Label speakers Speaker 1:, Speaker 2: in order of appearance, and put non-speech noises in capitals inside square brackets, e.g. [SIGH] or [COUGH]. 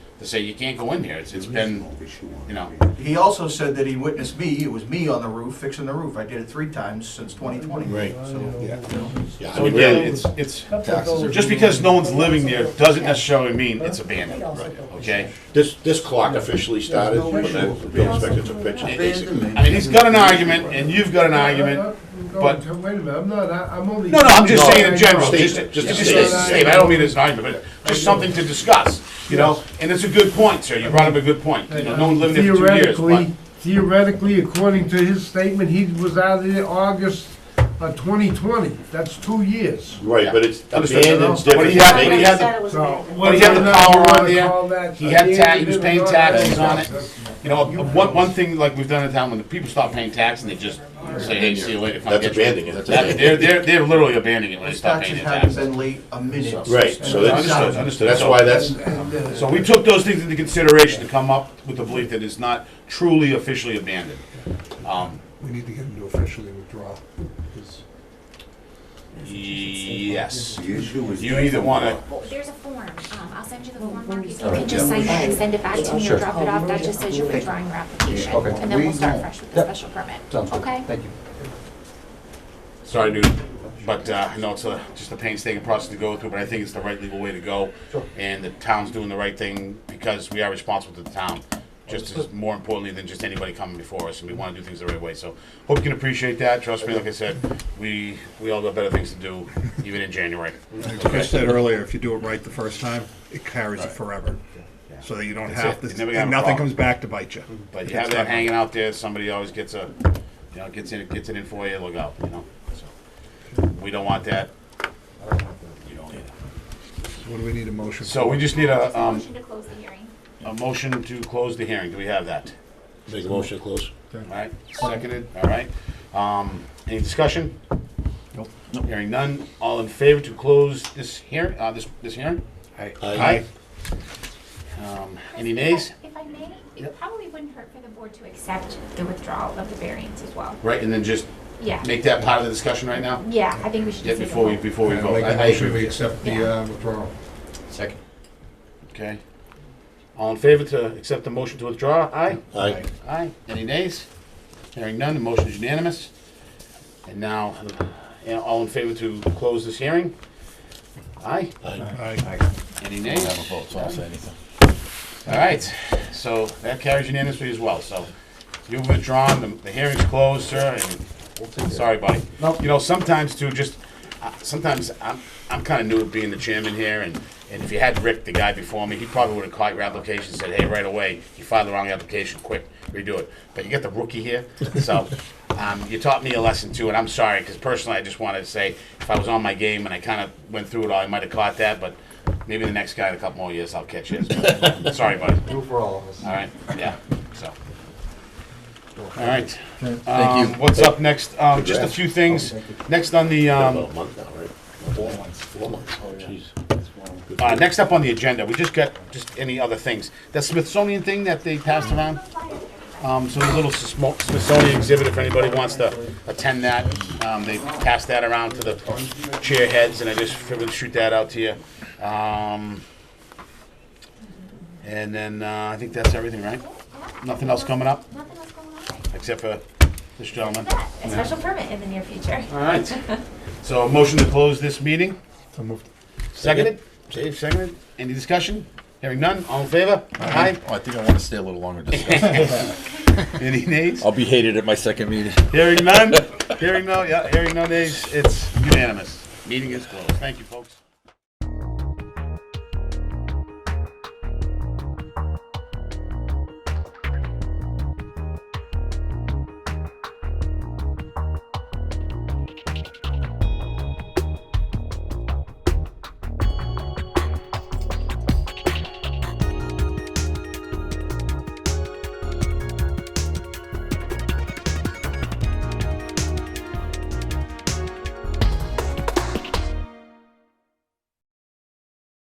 Speaker 1: to say you can't go in there. It's, it's been, you know,
Speaker 2: He also said that he witnessed me, it was me on the roof fixing the roof. I did it three times since 2020.
Speaker 3: Right.
Speaker 2: So,
Speaker 3: Yeah.
Speaker 1: Yeah, I
Speaker 3: So
Speaker 1: mean,
Speaker 3: again,
Speaker 1: really,
Speaker 3: it's, it's
Speaker 4: Taxes
Speaker 3: taxes.
Speaker 4: are-
Speaker 1: just because no one's living there doesn't necessarily mean it's abandoned, okay?
Speaker 4: This, this clock officially started
Speaker 5: no
Speaker 4: when
Speaker 5: issue.
Speaker 4: the building inspector took pictures, basically.
Speaker 1: I mean, he's got an argument, and you've got an argument. but-
Speaker 5: Wait a minute, I'm not, I- I'm only.
Speaker 1: No, no, I'm just
Speaker 4: No,
Speaker 1: saying in general, just,
Speaker 4: statement,
Speaker 1: just,
Speaker 4: just
Speaker 1: just
Speaker 4: a
Speaker 1: a
Speaker 4: statement.
Speaker 1: statement, I don't mean it's an argument, but just something to discuss, you know? And it's a good point, sir, you brought up a good point, you know, no one lived there for two years, but.
Speaker 5: Theoretically, theoretically, according to his statement, he was out of there August of 2020. That's two years.
Speaker 4: Right, but it's
Speaker 1: Understood.
Speaker 4: abandoned,
Speaker 1: But he
Speaker 4: different.
Speaker 1: had- but he
Speaker 4: They-
Speaker 1: had the-
Speaker 6: said it was
Speaker 5: So.
Speaker 6: abandoned.
Speaker 1: But he had the
Speaker 5: whether or not
Speaker 1: power
Speaker 5: you
Speaker 1: on
Speaker 5: wanna
Speaker 1: there.
Speaker 5: call that
Speaker 1: He had ta- he was
Speaker 5: abandoned
Speaker 1: paying
Speaker 5: or not,
Speaker 1: taxes on
Speaker 5: that's-
Speaker 1: it. You know, one, one thing like we've done in town, when the people stop paying tax and they just say, hey, see you later. come
Speaker 4: That's
Speaker 1: get you."
Speaker 4: abandoning it.
Speaker 1: That- They're, they're, they're literally abandoning it when they
Speaker 2: His
Speaker 1: stop paying
Speaker 2: taxes
Speaker 1: their taxes.
Speaker 2: haven't been late a minute.
Speaker 4: Right, so that's,
Speaker 1: Understood, understood.
Speaker 4: that's why that's,
Speaker 1: So we took those things into consideration to come up with the belief that it's not truly officially abandoned. Um,
Speaker 3: We need to get him to officially withdraw his.
Speaker 1: yes.
Speaker 7: The issue is.
Speaker 1: You either wanna,
Speaker 6: Well, There's a form, um, I'll send you the form, Mark, if you can just sign it and send it back to me or drop it off, that just says you're withdrawing your application.
Speaker 7: Okay.
Speaker 6: And then we'll start fresh with the
Speaker 7: Yep.
Speaker 6: special permit,
Speaker 7: Sounds good.
Speaker 6: okay?
Speaker 7: Thank you.
Speaker 1: sorry, dude, but, uh, I know it's a, just a painstaking process to go through, but I think it's the right legal way to go. And the town's doing the right thing because we are responsible to the town, just as more importantly than just anybody coming before us, and we wanna do things the right way, so. Hope you can appreciate that, trust me, like I said, we, we all got better things to do, even in January.
Speaker 3: Like I said earlier, if you do it right the first time, it carries it forever. So that you don't
Speaker 1: That's
Speaker 3: have
Speaker 1: it.
Speaker 3: to,
Speaker 1: You're never gonna have
Speaker 3: and
Speaker 1: a
Speaker 3: nothing
Speaker 1: problem.
Speaker 3: comes back to bite you.
Speaker 1: But
Speaker 3: If
Speaker 1: you have
Speaker 3: it's
Speaker 1: that
Speaker 3: not-
Speaker 1: hanging out there, somebody always gets a, you know, gets in, gets it in for you, look out, you know, so. We don't want that. You don't either.
Speaker 3: What do we need a motion?
Speaker 1: So we just need a, um,
Speaker 6: Motion to close the hearing.
Speaker 1: a motion to close the hearing, do we have that?
Speaker 4: make a motion to close.
Speaker 1: Alright, seconded, alright, um, any discussion? Nope. Hearing none, all in favor to close this hearing, uh, this, this hearing?
Speaker 4: Aye.
Speaker 1: Um, any nays?
Speaker 6: If I may, it probably wouldn't hurt for the board to accept the withdrawal of the variance as well.
Speaker 1: Right, and then just
Speaker 6: Yeah,
Speaker 1: make that part of the discussion right now?
Speaker 6: yeah, I think we should
Speaker 1: Yeah,
Speaker 6: just make a
Speaker 1: before we,
Speaker 6: vote.
Speaker 1: before we
Speaker 3: Uh,
Speaker 1: vote.
Speaker 3: Make
Speaker 1: I-
Speaker 3: a
Speaker 1: I agree
Speaker 3: motion,
Speaker 1: with
Speaker 3: we
Speaker 1: you.
Speaker 3: accept the
Speaker 6: Yeah.
Speaker 3: uh, withdrawal.
Speaker 7: Second.
Speaker 1: Okay. All in favor to accept the motion to withdraw? Aye?
Speaker 4: Aye.
Speaker 1: Aye. Any nays? Hearing none, the motion is unanimous. And now, uh, all in favor to close this hearing? Aye?
Speaker 3: Aye.
Speaker 1: Any nays? All right, so that carries unanimously as well, so you've withdrawn, the- the hearing's closed, sir, and, sorry, buddy. You know, sometimes too, just, uh, sometimes I'm, I'm kinda new at being the chairman here, and, and if you had Rick, the guy before me, he probably would've caught your application, and said, hey, right away, you filed the wrong application, quick, redo it. But you got the rookie here, so, um, you taught me a lesson too, and I'm sorry, cause personally, I just wanted to say, if I was on my game and I kinda went through it all, I might've caught that, but maybe the next guy in a couple more years, I'll catch his. But, [LAUGHS] Sorry, buddy.
Speaker 7: Two for all of us.
Speaker 1: All right, yeah, so. All right. Um, what's up next? Um, just a few
Speaker 7: Oh,
Speaker 1: things. Next on the, um,
Speaker 4: About Oh, a month now, right? Four months. Four months, oh, jeez.
Speaker 1: uh, next up on the agenda, we just got, just any other things. That Smithsonian thing that they passed around, um, so there's a little Smo- Smithsonian exhibit if anybody wants to attend that. Um, they passed that around to the chair heads and I just figured to shoot that out to you. Um, and then, uh, I think that's everything, right? Nothing else coming up?
Speaker 6: Nothing else going on.
Speaker 1: except for this gentleman.
Speaker 6: A special permit in the near future.
Speaker 1: All right. So a motion to close this meeting.
Speaker 3: So moved.
Speaker 1: Seconded? Dave, seconded. Any discussion? Hearing none, all in favor? Aye.
Speaker 8: Oh, I think I want to stay a little longer. to discuss.
Speaker 1: Any nays?
Speaker 8: I'll be hated at my second meeting.
Speaker 1: Hearing none? Hearing no, yeah, hearing no nays. It's unanimous. Meeting is closed. Thank you, folks.